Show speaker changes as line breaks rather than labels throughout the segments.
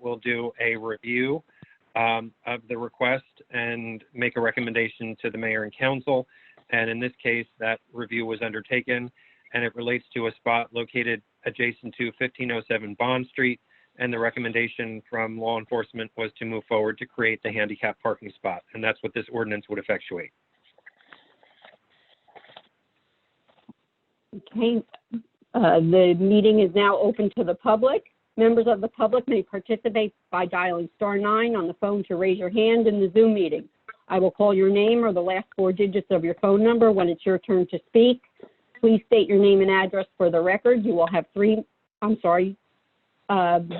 will do a review um, of the request and make a recommendation to the mayor and council. And in this case, that review was undertaken and it relates to a spot located adjacent to 1507 Bond Street. And the recommendation from law enforcement was to move forward to create the handicap parking spot. And that's what this ordinance would effectuate.
Okay, uh, the meeting is now open to the public. Members of the public may participate by dialing star nine on the phone to raise your hand in the Zoom meeting. I will call your name or the last four digits of your phone number when it's your turn to speak. Please state your name and address for the record. You will have three, I'm sorry. Um,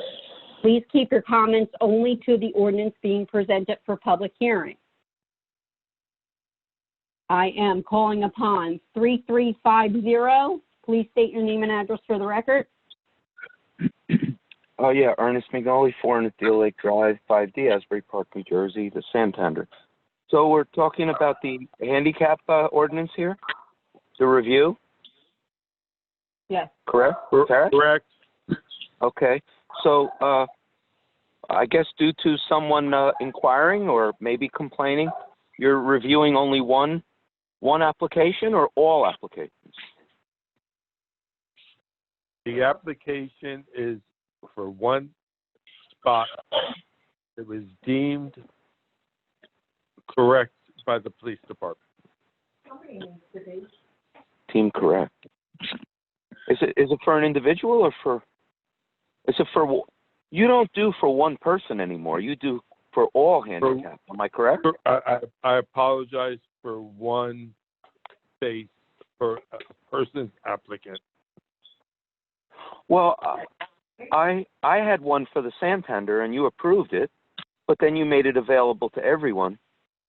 Please keep your comments only to the ordinance being presented for public hearing. I am calling upon 3350. Please state your name and address for the record.
Oh yeah, Ernest McNally, four hundred Deal Lake Drive, five D, Asbury Park, New Jersey, the Santander. So we're talking about the handicap uh, ordinance here, the review,
Yes.
correct? Sarah?
Correct.
Okay, so uh, I guess due to someone uh, inquiring or maybe complaining, you're reviewing only one, one application or all applications?
The application is for one spot. It was deemed correct by the police department.
Team correct. Is it is it for an individual or for? Is it for? You don't do for one person anymore. You do for all handicapped. Am I correct?
I, I, I apologize for one space for a person's applicant.
Well, I I had one for the Santander and you approved it, but then you made it available to everyone,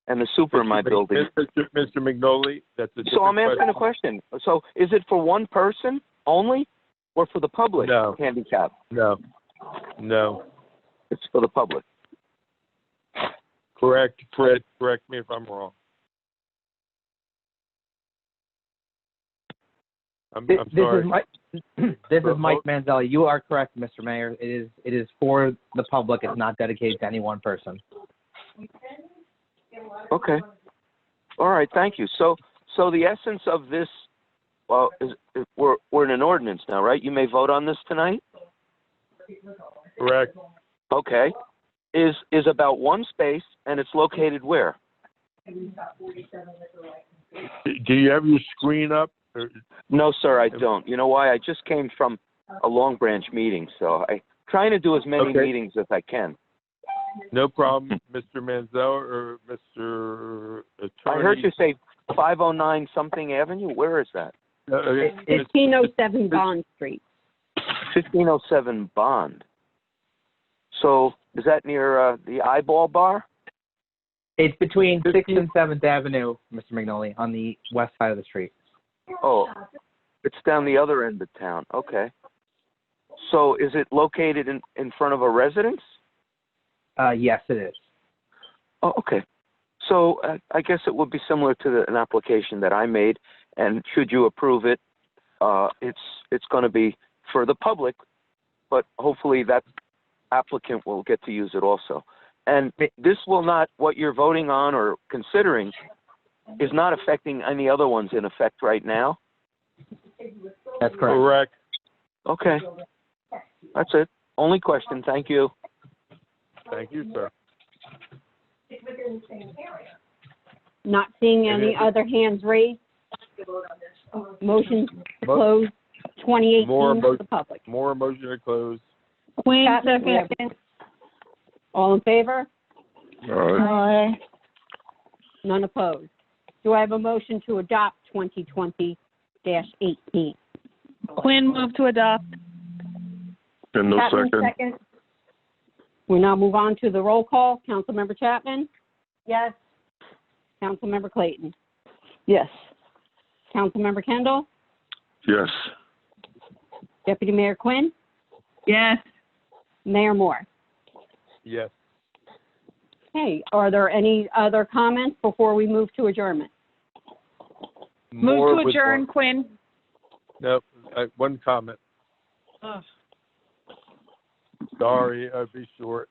and the super in my building.
Mr. Mr. McNally, that's a different
So I'm asking a question. So is it for one person only, or for the public
No.
handicap?
No, no,
It's for the public.
correct, Fred, correct me if I'm wrong. I'm,
Thi-
I'm
This
sorry.
is Mike, this
For
is Mike Manzelli. You are correct, Mr. Mayor. It is, it is for the public. It's not dedicated to any one person.
Okay. All right, thank you. So, so the essence of this, well, is, is- we're, we're in an ordinance now, right? You may vote on this tonight?
Correct.
Okay. Is, is about one space and it's located where?
Do- Do you have your screen up? Or-
No, sir, I don't. You know why? I just came from a Long Branch meeting, so I, trying to do as many
Okay.
meetings as I can.
No problem, Mr. Manzel or Mr. Attorney.
I heard you say five oh nine something avenue. Where is that?
Uh, uh, Mr.
1507 Bond Street.
Fifteen oh seven Bond. So is that near, uh, the Eyeball Bar?
It's between Sixth and Seventh Avenue, Mr. McNally, on the west side of the street.
Oh, it's down the other end of town. Okay. So is it located in, in front of a residence?
Uh, yes, it is.
Oh, okay. So uh, I guess it would be similar to the, an application that I made, and should you approve it, uh, it's it's going to be for the public, but hopefully that applicant will get to use it also. And this will not what you're voting on or considering is not affecting any other ones in effect right now.
That's correct.
Correct.
Okay. That's it. Only question. Thank you.
Thank you, sir.
Not seeing any
And it-
other hands raised. Motion to close 2018
More
to
mo-
the public.
More motion to close.
Queen, second. All in favor? Aye. None opposed. Do I have a motion to adopt 2020-18?
Quinn move to adopt.
No
Chapman, second. We now move on to the roll call. Councilmember Chapman? Yes. Councilmember Clayton?
Yes.
Councilmember Kendall?
Yes.
Deputy Mayor Quinn?
Yes.
Mayor Moore?
Yes.
Okay, are there any other comments before we move to adjournment?
More
Move to
with
adjourn,
one-
Quinn.
No, uh, one comment.
Ugh.
Sorry, I'd be short.